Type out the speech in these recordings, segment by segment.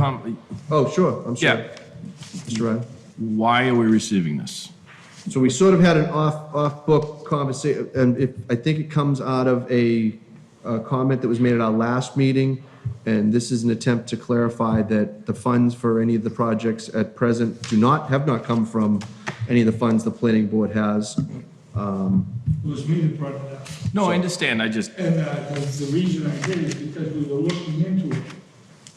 com, Oh, sure, I'm sorry. Yeah. Mr. Ryan. why are we receiving this? So we sort of had an off, off-book conversation, and if, I think it comes out of a, a comment that was made at our last meeting, and this is an attempt to clarify that the funds for any of the projects at present do not, have not come from any of the funds the planning board has. It was me that brought it up. No, I understand, I just, And uh, the the reason I did is because we were looking into it,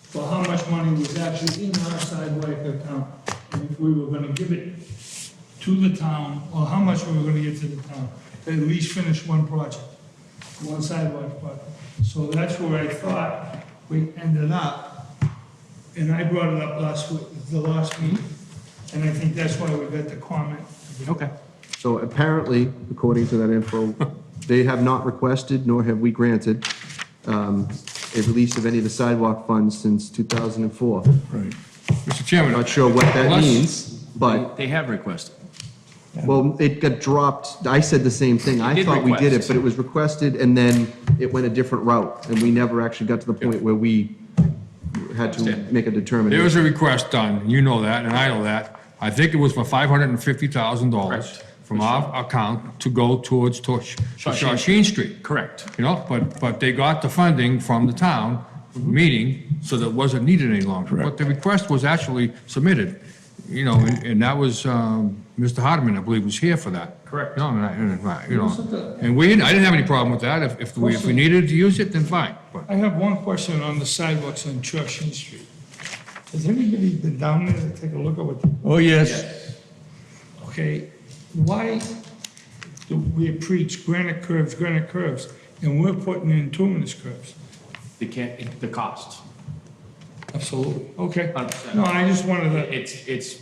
for how much money was actually in our sidewalk account, and if we were gonna give it to the town, or how much we were gonna get to the town, to at least finish one project, one sidewalk project. So that's where I thought we ended up, and I brought it up last week, the last meeting, and I think that's why we got the comment. okay. So apparently, according to that info, they have not requested, nor have we granted, um, a release of any of the sidewalk funds since 2004. Right. Mr. Chairman. Not sure what that unless- means, but- They have requested. Well, it got dropped, I said the same thing, I did thought we did it, request. but it was requested, and then it went a different route, and we never actually got to the point where we had to Understand. make a There was determination. a request done, you know that, and I know that. I think it was for five hundred and fifty thousand dollars Correct. from our account to go towards Tor- Shawshene Street. Correct. You know, but, but they got the funding from the town meeting, so that wasn't needed any longer. But the request was actually submitted, you know, and and that was, um, Mr. Hardeman, I believe, was here for that. Correct. No, and I, and I- you Wasn't know, that- and we, I didn't have any problem with that. If, if we, if we needed to use it, then fine, but. I have one question on the sidewalks on Churchill Street. Has anybody been down there to take a look at what, Oh, yes. okay, why do we preach granite curves, granite curves, and we're putting in tuminous curves? They can't, the cost. Absolutely. Okay. 100%. No, I just wanted It's, it's,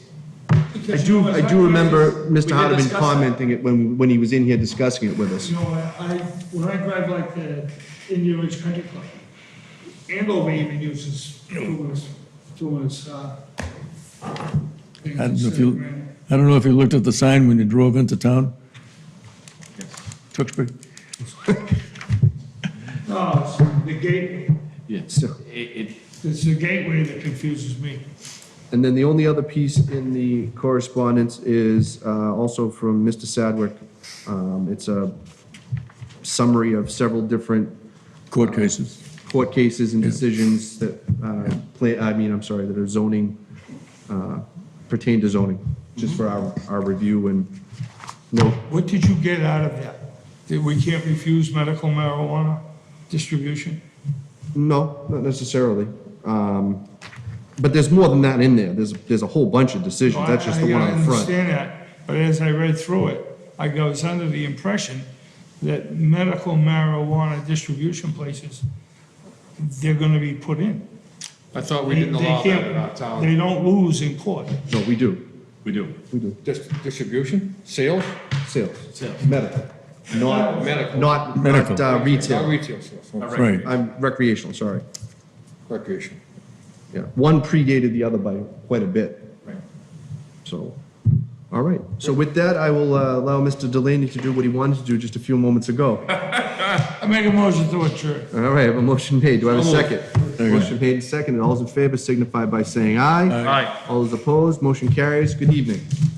to. I do, I do remember Mr. did Hardeman discuss that. commenting it when, when he was in here discussing it with us. You know, I, I- when I drive like uh, the Indian Ridge Country Club, Andover even uses tuminous, tuminous, uh. things I don't know if instead you- of granite. I don't know if you looked at the sign when you drove into town? Tewksbury? No, it's the gateway. yes, So- it, it, It's the gateway that confuses me. And then the only other piece in the correspondence is uh, also from Mr. Sadwick. Um, It's a summary of several different Court cases. court cases and decisions that, uh, pla- I mean, I'm sorry, that are zoning, uh, pertain to zoning, just Mm-hmm. for our, our review and, no, What did you get out of that? That we can't refuse medical marijuana distribution? no, not necessarily. Um, But there's more than that in there, there's, there's a whole bunch of decisions, that's just the one I- I up front. understand that, but as I read through it, I was under the impression that medical marijuana distribution places, they're gonna be put in. I thought They- they can't- They don't lose in court. No, we do, we do. we do, Dis- Distribution, sales? sales, Sales. medical, not, Medical. not, not Medical. uh, Not retail, retail sales, oh, Right. I'm recreational, sorry. recreation. Yeah, one predated the other by quite a bit. Right. So, all right. So with that, I will uh, allow Mr. Delaney to do what he wanted to do just a few moments ago. I make a motion to adjourn. All right, I have a motion made. Do I have a second? Second. Motion made and second, and all those in favor signify by saying aye. Aye. All those opposed, motion carries. Good evening.